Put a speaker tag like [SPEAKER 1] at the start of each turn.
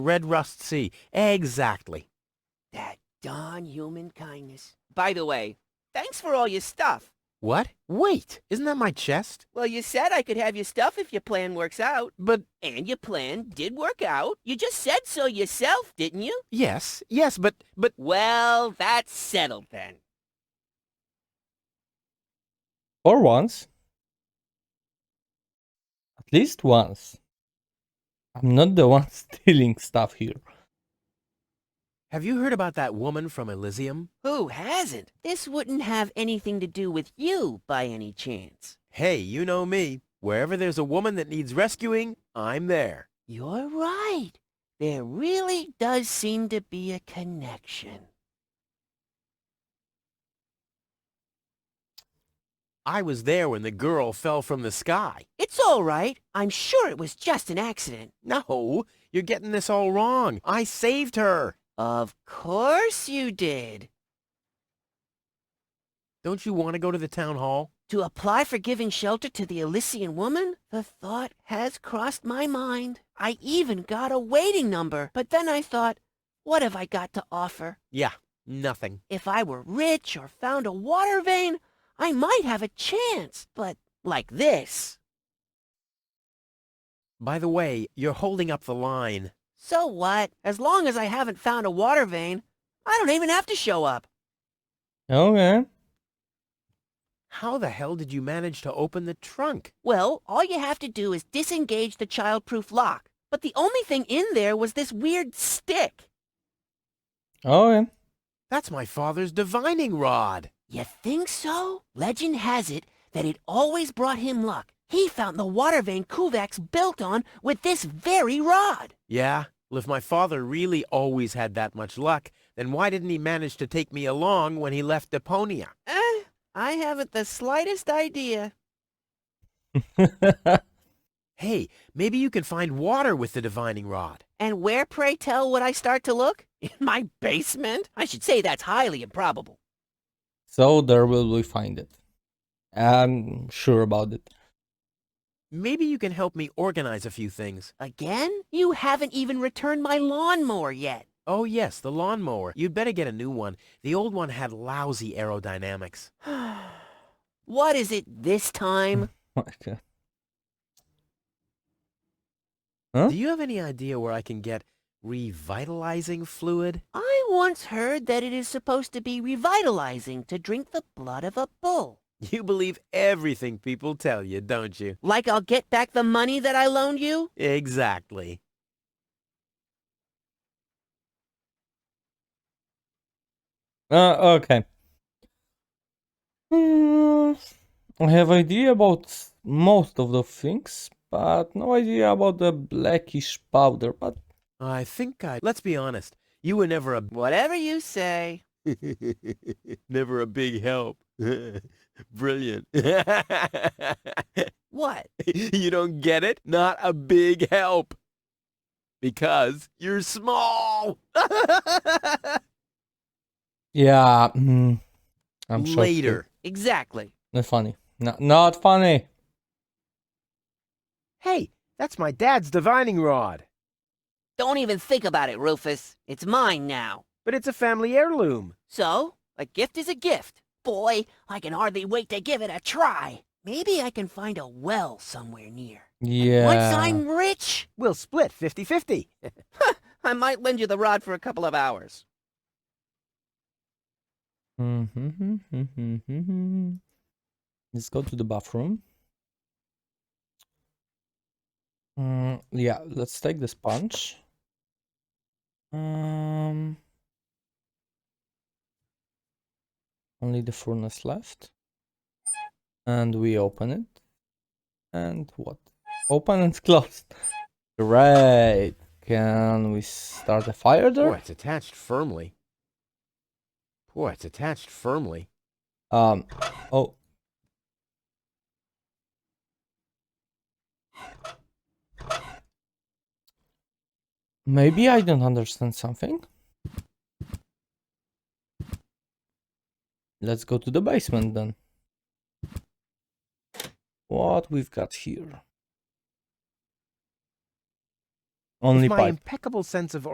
[SPEAKER 1] Red Rust Sea. Exactly.
[SPEAKER 2] That darn human kindness. By the way, thanks for all your stuff.
[SPEAKER 1] What? Wait, isn't that my chest?
[SPEAKER 2] Well, you said I could have your stuff if your plan works out.
[SPEAKER 1] But
[SPEAKER 2] And your plan did work out. You just said so yourself, didn't you?
[SPEAKER 1] yes, yes, but but
[SPEAKER 2] Well, that's settled then.
[SPEAKER 3] Or once. At least once. I'm not the one stealing stuff here.
[SPEAKER 1] have you heard about that woman from Elysium?
[SPEAKER 2] Who hasn't? This wouldn't have anything to do with you by any chance.
[SPEAKER 1] Hey, you know me. Wherever there's a woman that needs rescuing, I'm there.
[SPEAKER 2] You're right. There really does seem to be a connection.
[SPEAKER 1] I was there when the girl fell from the sky.
[SPEAKER 2] It's all right. I'm sure it was just an accident.
[SPEAKER 1] No, you're getting this all wrong. I saved her.
[SPEAKER 2] Of course you did.
[SPEAKER 1] Don't you want to go to the town hall?
[SPEAKER 2] To apply for giving shelter to the Elysian woman? The thought has crossed my mind. I even got a waiting number. But then I thought, what have I got to offer?
[SPEAKER 1] Yeah, nothing.
[SPEAKER 2] If I were rich or found a water vein, I might have a chance. But like this.
[SPEAKER 1] By the way, you're holding up the line.
[SPEAKER 2] So what? As long as I haven't found a water vein, I don't even have to show up.
[SPEAKER 3] Okay.
[SPEAKER 1] How the hell did you manage to open the trunk?
[SPEAKER 2] Well, all you have to do is disengage the childproof lock. But the only thing in there was this weird stick.
[SPEAKER 3] Okay.
[SPEAKER 1] That's my father's divining rod.
[SPEAKER 2] You think so? Legend has it that it always brought him luck. He found the water vein Kuvak's built on with this very rod.
[SPEAKER 1] Yeah, well, if my father really always had that much luck, then why didn't he manage to take me along when he left Deponia?
[SPEAKER 2] Eh, I haven't the slightest idea.
[SPEAKER 1] Hey, maybe you can find water with the divining rod.
[SPEAKER 2] And where, pray tell, would I start to look? In my basement? I should say that's highly improbable.
[SPEAKER 3] so there will we find it. I'm sure about it.
[SPEAKER 1] Maybe you can help me organize a few things.
[SPEAKER 2] Again? You haven't even returned my lawnmower yet.
[SPEAKER 1] Oh yes, the lawnmower. You'd better get a new one. The old one had lousy aerodynamics.
[SPEAKER 2] What is it this time?
[SPEAKER 3] Okay. Huh?
[SPEAKER 1] Do you have any idea where I can get revitalizing fluid?
[SPEAKER 2] I once heard that it is supposed to be revitalizing to drink the blood of a bull.
[SPEAKER 1] You believe everything people tell you, don't you?
[SPEAKER 2] Like I'll get back the money that I loaned you?
[SPEAKER 1] Exactly.
[SPEAKER 3] Uh, okay. Hmm, I have idea about s- most of the things, but no idea about the blackish powder. But
[SPEAKER 1] I think I... Let's be honest. You were never a...
[SPEAKER 2] Whatever you say.
[SPEAKER 1] never a big help. Brilliant.
[SPEAKER 2] What?
[SPEAKER 1] you don't get it? Not a big help. Because you're small.
[SPEAKER 3] yeah, mm, I'm sure.
[SPEAKER 1] Later.
[SPEAKER 2] Exactly.
[SPEAKER 3] Not funny. No, not funny.
[SPEAKER 1] Hey, that's my dad's divining rod.
[SPEAKER 2] Don't even think about it, Rufus. It's mine now.
[SPEAKER 1] But it's a family heirloom.
[SPEAKER 2] So, a gift is a gift. Boy, I can hardly wait to give it a try. Maybe I can find a well somewhere near.
[SPEAKER 3] Yeah.
[SPEAKER 2] Once I'm rich,
[SPEAKER 1] We'll split fifty-fifty.
[SPEAKER 2] I might lend you the rod for a couple of hours.
[SPEAKER 3] Mhm. Let's go to the bathroom. Mm, yeah, let's take the sponge. Um, only the furnace left. And we open it. And what? Open and closed. Great. Can we start a fire
[SPEAKER 1] Boy,
[SPEAKER 3] there?
[SPEAKER 1] it's attached firmly. Boy, it's attached firmly.
[SPEAKER 3] Um, oh. Maybe I don't understand something. Let's go to the basement then. What we've got here? Only
[SPEAKER 1] With my
[SPEAKER 3] pipe.
[SPEAKER 1] impeccable sense of